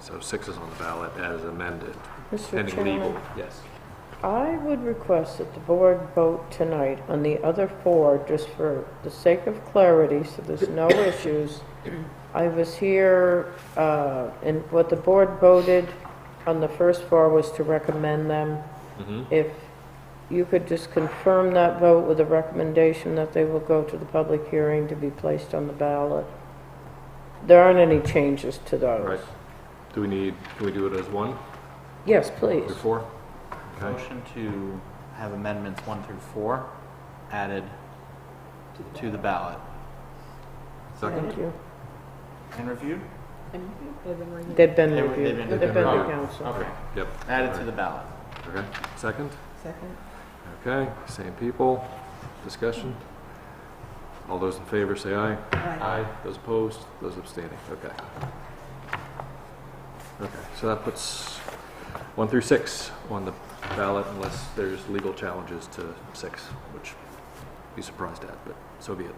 So six is on the ballot as amended, Mr. pending legal. Chairman, Yes. I would request that the board vote tonight on the other four, just for the sake of clarity, so there's no issues. I was here, uh, and what the board voted on the first four was to recommend them. If you could just confirm that vote with a recommendation that they will go to the public hearing to be placed on the ballot. There aren't any changes to those. Right. Do we need, can we do it as one Yes, please. through four? Okay. Motion to have amendments one through four added to the ballot. Second? Thank you. And reviewed? They've been They were- reviewed. they've They've been been to reviewed. council. Okay. Yep. Added to the ballot. Okay, second? Second. Okay, same people, discussion. All those in favor say aye. Aye. Those opposed, those abstaining, okay. Okay, so that puts one through six on the ballot unless there's legal challenges to six, which I'd be surprised at, but so be it.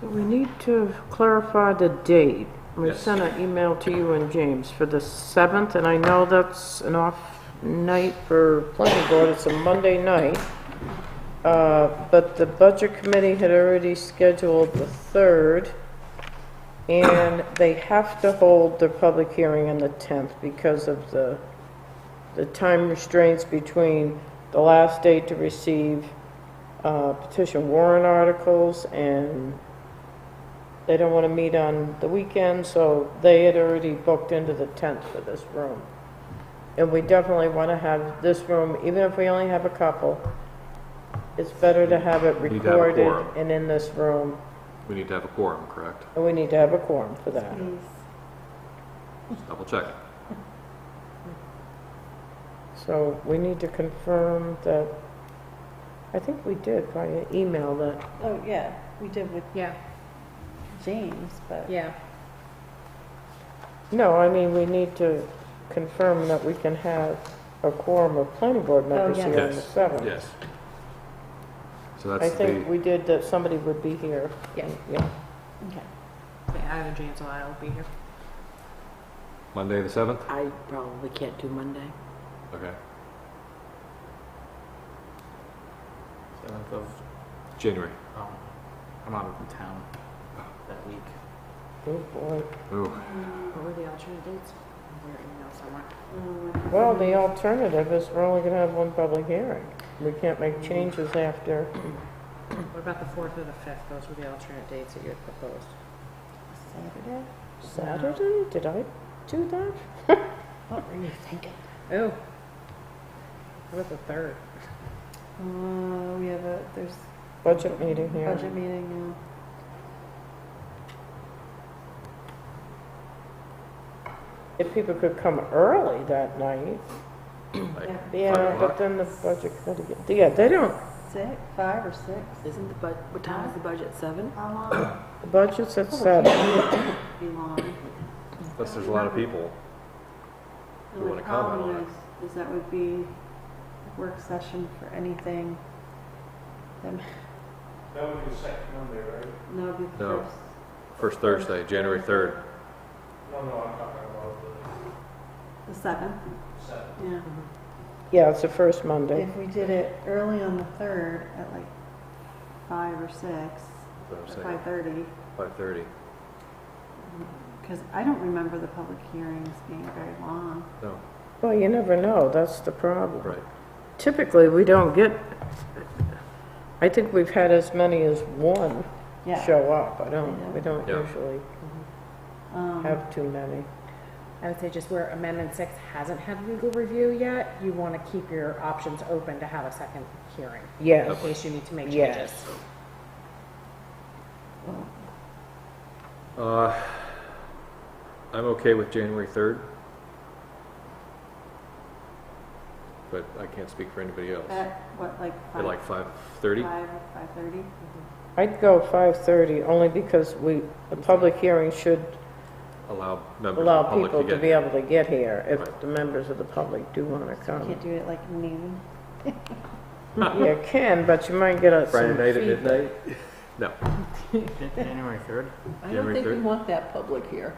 So we need to clarify the date. We Yes. sent an email to you and James for the 7th, and I know that's an off night for planning board, it's a Monday night. Uh, But the budget committee had already scheduled the 3rd, and they have to hold their public hearing on the 10th because of the, the time restraints between the last date to receive uh, petition warrant articles, and they don't want to meet on the weekend, so they had already booked into the 10th for this room. And we definitely want to have this room, even if we only have a couple, it's better to have it Need to have a recorded quorum. and in this room, We need to have a quorum, correct? and we need to have a quorum for that. Just Double check. So we need to confirm that, I think we did via email that, Oh, yeah, we did with Yeah, James, but yeah. no, I mean, we need to confirm that we can have a quorum of planning board members yeah. here on the Yes. 7th. Yes. So I that's think the, we did that somebody would be here. Yeah. Yeah. okay. Yeah, either James or I will be here. Monday, the seventh? I probably can't do Monday. Okay. Seventh of, January. um, I'm out of town that week. Oh, boy. Ooh, What were the alternate dates? We're email somewhere. Mm. Well, the alternative is we're only going to have one public hearing. We can't make Mm-hmm. changes after. What about the fourth or the fifth? Those were the alternate dates that you had proposed. Saturday? Saturday? Did I do that? What were you thinking? Oh. What about the third? Uh, we have a, there's Budget meeting here. budget meeting If people could come early that night. like Yeah. Yeah, o'clock? but then the budget committee, yeah, they don't, now, six, five or six. Isn't the bud, what time is the budget, seven? How long? the budget's Oh, at seven. Um, Be long. Unless there's a lot of people. The We wanna only comment problem on it. is, is that would be a work session for anything. That would be the second Monday, right? No, it'd be the No. first. First Thursday, January 3rd. The seventh. Seventh. Yeah, it's the first Yeah, Monday. if we did it early on the third at like five or six, five thirty. 5:30. Because I don't remember the public hearings being very long. No, Well, you never know, that's the problem. right. Typically, we don't get, I think we've had as many as one Yeah. show up. I don't, we don't Yeah. usually Um, have too many. I would say just where amendment six hasn't had legal review yet, you want to keep your options open to have a second hearing in Yes, case you need to make Yes. changes. Uh, I'm okay with January 3rd. But I can't speak for anybody else. At what, like At five? like 5:30? Five, five thirty? I'd go 5:30 only because we, the public hearing should Allow members of the allow public people to to be get. able to get here if Right. the members of the public do want to come. Can't do it like noon. You can, but you might get a- Friday some night at feedback. midnight? No. Jan- January third? I don't January think we third? want that public here.